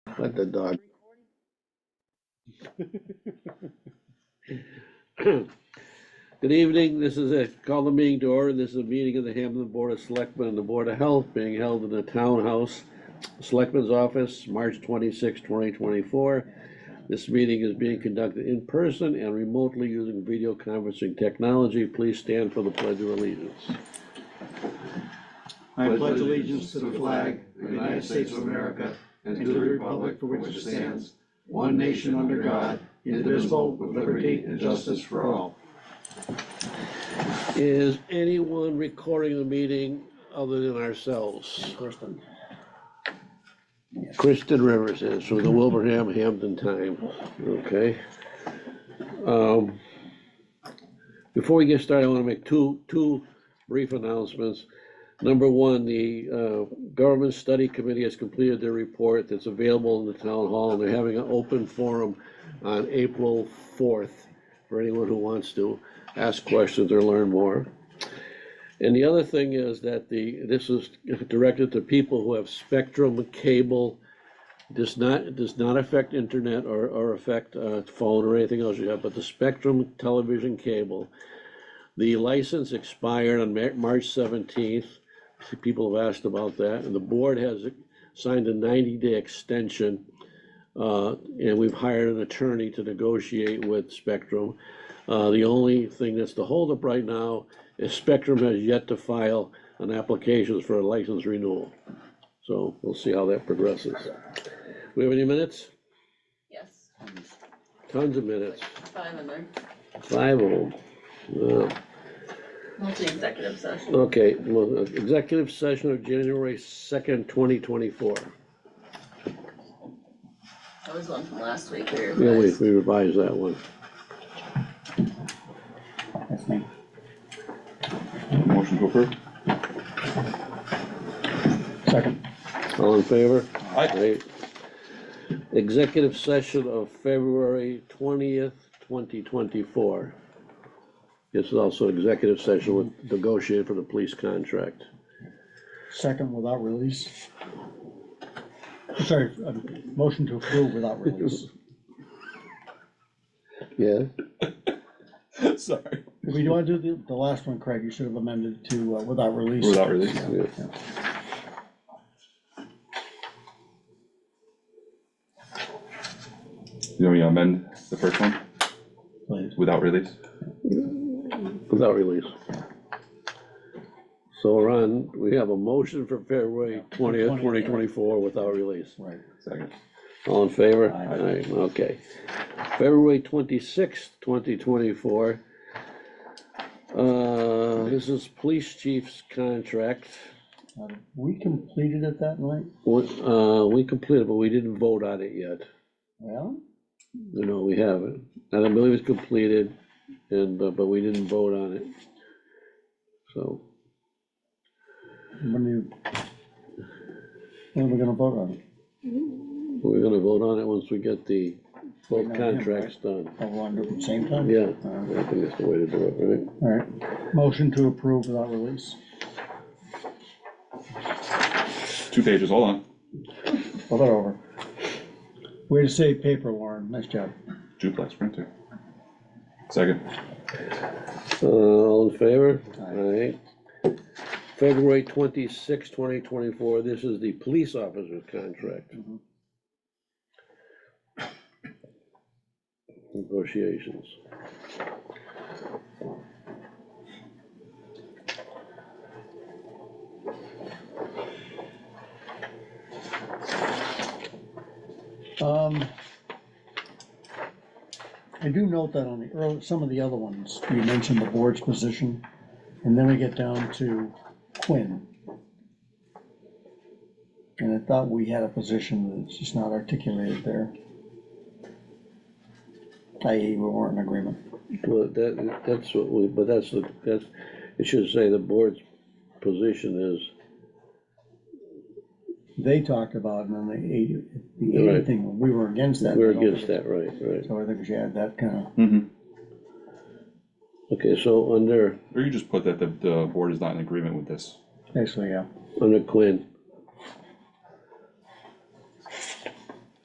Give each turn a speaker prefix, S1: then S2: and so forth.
S1: Let the dog. Good evening, this is it. Call the meeting to order. This is a meeting of the Hamilton Board of Selectmen and the Board of Health being held in the Townhouse Selectmen's Office, March 26, 2024. This meeting is being conducted in person and remotely using video conferencing technology. Please stand for the Pledge of Allegiance.
S2: I pledge allegiance to the flag of the United States of America and to the republic for which it stands, one nation under God, indivisible, with liberty and justice for all.
S1: Is anyone recording the meeting other than ourselves?
S2: Kristen.
S1: Kristen Rivers is from the Wilbraham Hampton Time, okay? Um, Before we get started, I want to make two, two brief announcements. Number one, the uh, Government Study Committee has completed their report that's available in the town hall. and They're having an open forum on April fourth for anyone who wants to ask questions or learn more. And the other thing is that the, this is directed to people who have spectrum cable. Does not, does not affect internet or, or affect, uh, phone or anything else you have, but the spectrum television cable. The license expired on Mar- March seventeenth. People have asked about that, and the board has signed a ninety-day extension. Uh, and we've hired an attorney to negotiate with Spectrum. Uh, the only thing that's the holdup right now is Spectrum has yet to file an application for a license renewal. So we'll see how that progresses. We have any minutes?
S3: Yes,
S1: Tons of minutes,
S3: five of them,
S1: five of them. Yeah.
S3: multi-executive session.
S1: Okay, well, uh, executive session of January second, twenty twenty-four.
S3: That was one from last week we
S1: Yeah, we,
S3: revised.
S1: we revised that one.
S2: That's me.
S4: Motion to approve?
S2: Second.
S1: All in favor?
S4: Aye.
S1: Right. Executive session of February twentieth, twenty twenty-four. This is also executive session with negotiated for the police contract.
S2: Second without release. Sorry, uh, motion to approve without release.
S1: Yeah,
S4: Sorry.
S2: If we want to do the, the last one, Craig, you should have amended to uh, without release.
S4: Without release.
S1: yeah.
S4: You want me to amend the first one
S2: Please.
S4: without release?
S1: without release. So Ron, we have a motion for February twentieth, twenty twenty-four without release.
S2: Right.
S4: Second.
S1: All in favor?
S2: Aye.
S1: Aye, okay. February twenty-sixth, twenty twenty-four. Uh, this is police chief's contract.
S2: Uh, We completed it that night?
S1: We, uh, we completed, but we didn't vote on it yet.
S2: Well,
S1: No, we haven't. And I believe it's completed, and, but, but we didn't vote on it. So,
S2: when you, when are we gonna vote on it?
S1: we're gonna vote on it once we get the,
S2: Right
S1: both
S2: now, yeah,
S1: contracts done.
S2: Oh, we want to do it at the same time?
S1: Yeah,
S2: Uh,
S1: I think that's the way to do it, right?
S2: All right, motion to approve without release.
S4: Two pages, hold on.
S2: Hold it over. Way to save paper, Warren, nice job.
S4: Duplex printer. Second.
S1: Uh, all in favor?
S2: Aye.
S1: Aye. February twenty-sixth, twenty twenty-four, this is the police officer's contract.
S2: Mhm.
S1: Negotiations.
S2: Um, I do note that on the early, some of the other ones, you mentioned the board's position, and then we get down to Quinn. And I thought we had a position that's just not articulated there. I.e., we weren't in agreement.
S1: Well, that, that's what we, but that's, the that's, it should say the board's position is,
S2: They talked about, and then the eighty, the eighty
S1: Right.
S2: thing, we were against that.
S1: we're against that, right, right.
S2: So I think we should add that kind of,
S4: Mm-hmm.
S1: Okay, so under,
S4: Or you just put that the, the board is not in agreement with this.
S2: basically, yeah.
S1: under Quinn,